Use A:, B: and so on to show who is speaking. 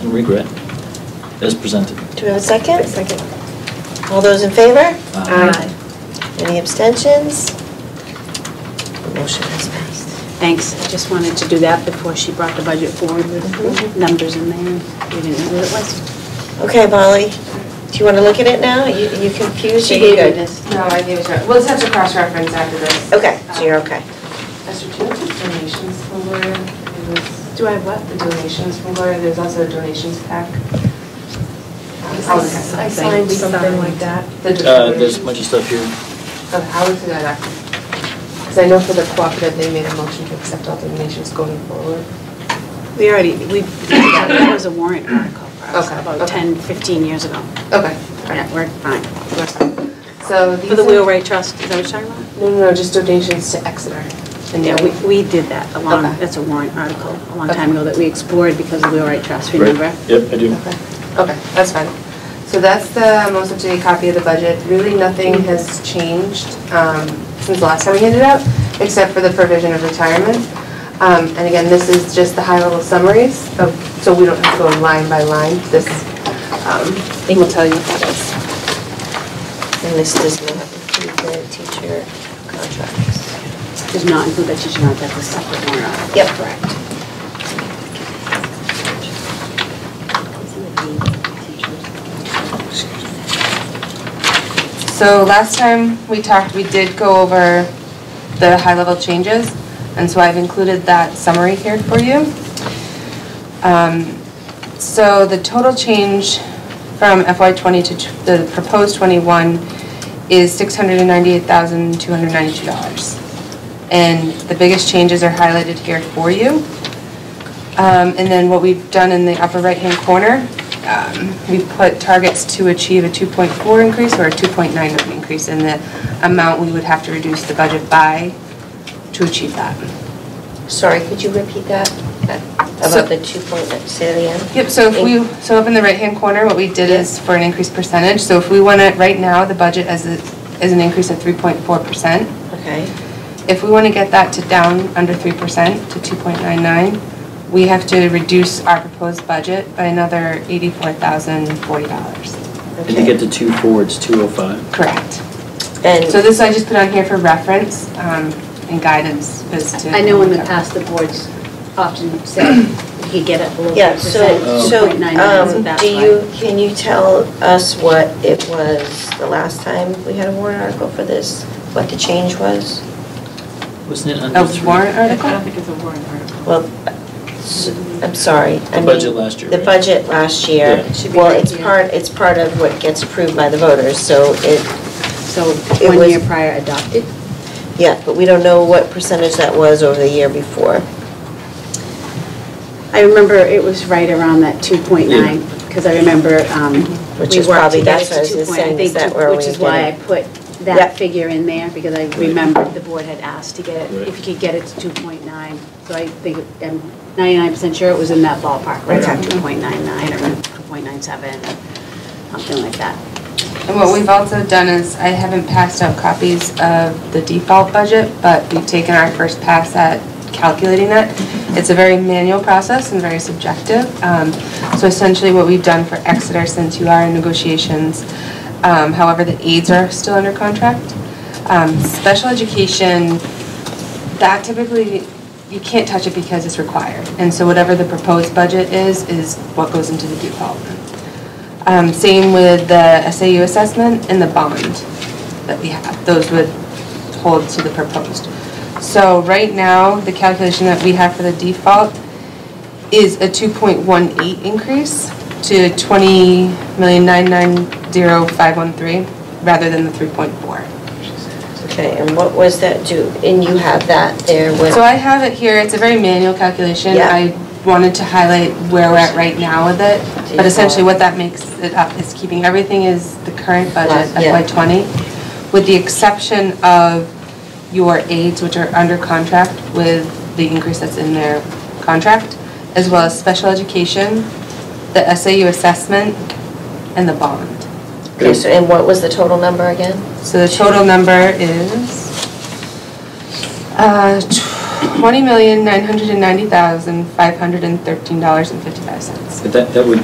A: and regret as presented.
B: Do we have a second?
C: Second.
B: All those in favor?
A: Uh,
C: Aye.
B: Any abstentions? The Motion is passed.
C: Thanks, I just wanted to do that before she brought the budget forward with
B: Mhm.
C: numbers in there. We didn't know what it was.
B: Okay, Molly, do you want to look at it now? You you confused?
C: She
B: Are you
C: gave me
B: good?
C: this.
D: No, I gave it to her. We'll just have to cross-reference after this.
B: Okay, so you're okay.
D: Esther, do you have the donations from Gloria? It was-
C: Do I have what?
D: The donations from Gloria, there's also a donations pack.
E: I signed something like that.
A: Uh, There's a bunch of stuff here.
D: Okay, I'll look through that after. Because I know for the cooperative, they made a motion to accept all donations going forward.
C: We already, we, that was a warrant article for us
D: Okay,
C: about
D: okay.
C: 10, 15 years ago.
D: Okay, all
C: Yeah,
D: right.
C: we're fine.
D: We're fine. So these
C: For the
D: are-
C: Wheelwright Trust, is that what you're talking about?
D: No, no, no, just donations to Exeter. And
C: Yeah,
D: then-
C: we, we did that a long,
D: Okay.
C: that's a warrant article, a long
D: Okay.
C: time ago that we explored because of the Wheelwright Trust, remember?
A: Yep, I do.
D: Okay, Okay, that's fine. So that's the most up-to-date copy of the budget. Really, nothing has changed um, since the last time we handed it out, except for the provision of retirement. Um, And again, this is just the high-level summaries, of- so we don't have to go line by line. This um, will tell you what it is.
B: And this does not include the teacher contracts.
C: Does not include that teacher, not that the separate warrant article.
B: Yep, correct.
D: So last time we talked, we did go over the high-level changes, and so I've included that summary here for you. Um, So the total change from FY '20 to t- the proposed '21 is $698,292. And the biggest changes are highlighted here for you. Um, And then what we've done in the upper right-hand corner, um, we've put targets to achieve a 2.4 increase or a 2.9 increase in the amount we would have to reduce the budget by to achieve that.
B: Sorry, could you repeat that?
D: So-
B: About the two point, say it again?
D: Yep, so if we, so up in the right-hand corner, what we did is for an increased percentage, so if we want to, right now, the budget as a, is an increase of 3.4%.
B: Okay.
D: If we want to get that to down under 3% to 2.99, we have to reduce our proposed budget by another $84,040.
A: And to get to two oh four, it's 205.
D: Correct.
B: And,
D: So this I just put on here for reference um, and guidance as to.
C: I know in the past, the boards often said we could get it below
B: yeah,
C: 3%,
A: Oh.
B: so, so,
C: 2.99, so
B: um,
C: that's
B: do
C: why.
B: you, can you tell us what it was the last time we had a warrant article for this? What the change was?
A: Wasn't it under
D: A
A: three?
D: Oh, warrant
E: I
D: article?
E: don't think it's a warrant article.
B: Well, s- I'm sorry. I
A: The
B: mean,
A: budget last year,
B: The
A: right?
B: budget last year.
A: Yeah.
C: It should be
B: Well,
C: right
B: it's
C: here.
B: part, it's part of what gets approved by the voters, so it,
C: So
B: It
C: one
B: was-
C: year prior adopted?
B: yeah, but we don't know what percentage that was over the year before.
C: I remember it was right around that 2.9, because I remember um,
B: Which
C: we
B: is
C: worked
B: probably-
C: to
B: that's
C: get
B: what
C: it
B: I was
C: to 2.9,
B: saying, is
C: I think,
B: that
C: two-
B: where
C: Which
B: we
C: is why I
B: get
C: put
B: Yep.
C: that figure in there, because I remembered the board had asked to get
A: Right.
C: it, if you could get it to 2.9. So I think, I'm 99% sure it was in that ballpark, right around
B: Okay.
C: 2.99 or 2.97, something like that.
D: And what we've also done is, I haven't passed out copies of the default budget, but we've taken our first pass at calculating that. It's a very manual process and very subjective. Um, So essentially, what we've done for Exeter, since you are in negotiations, um, however, the aides are still under contract. Um, Special education, that typically, you can't touch it because it's required. And so whatever the proposed budget is, is what goes into the default. Um, Same with the SAU assessment and the bond that we have. Those would hold to the proposed. So right now, the calculation that we have for the default is a 2.18 increase to 20,990,513 rather than the 3.4.
B: Okay, and what was that due? And you have that there with,
D: So I have it here, it's a very manual calculation.
B: Yeah.
D: I wanted to highlight where we're at right now with it, but essentially what that makes it up is keeping, everything is the current budget,
B: Last- yeah.
D: FY '20, with the exception of your aides, which are under contract with the increase that's in their contract, as well as special education, the SAU assessment, and the bond.
B: okay, so, and what was the total number again?
D: So the total number is uh, $20,990,513.55.
A: But that, that would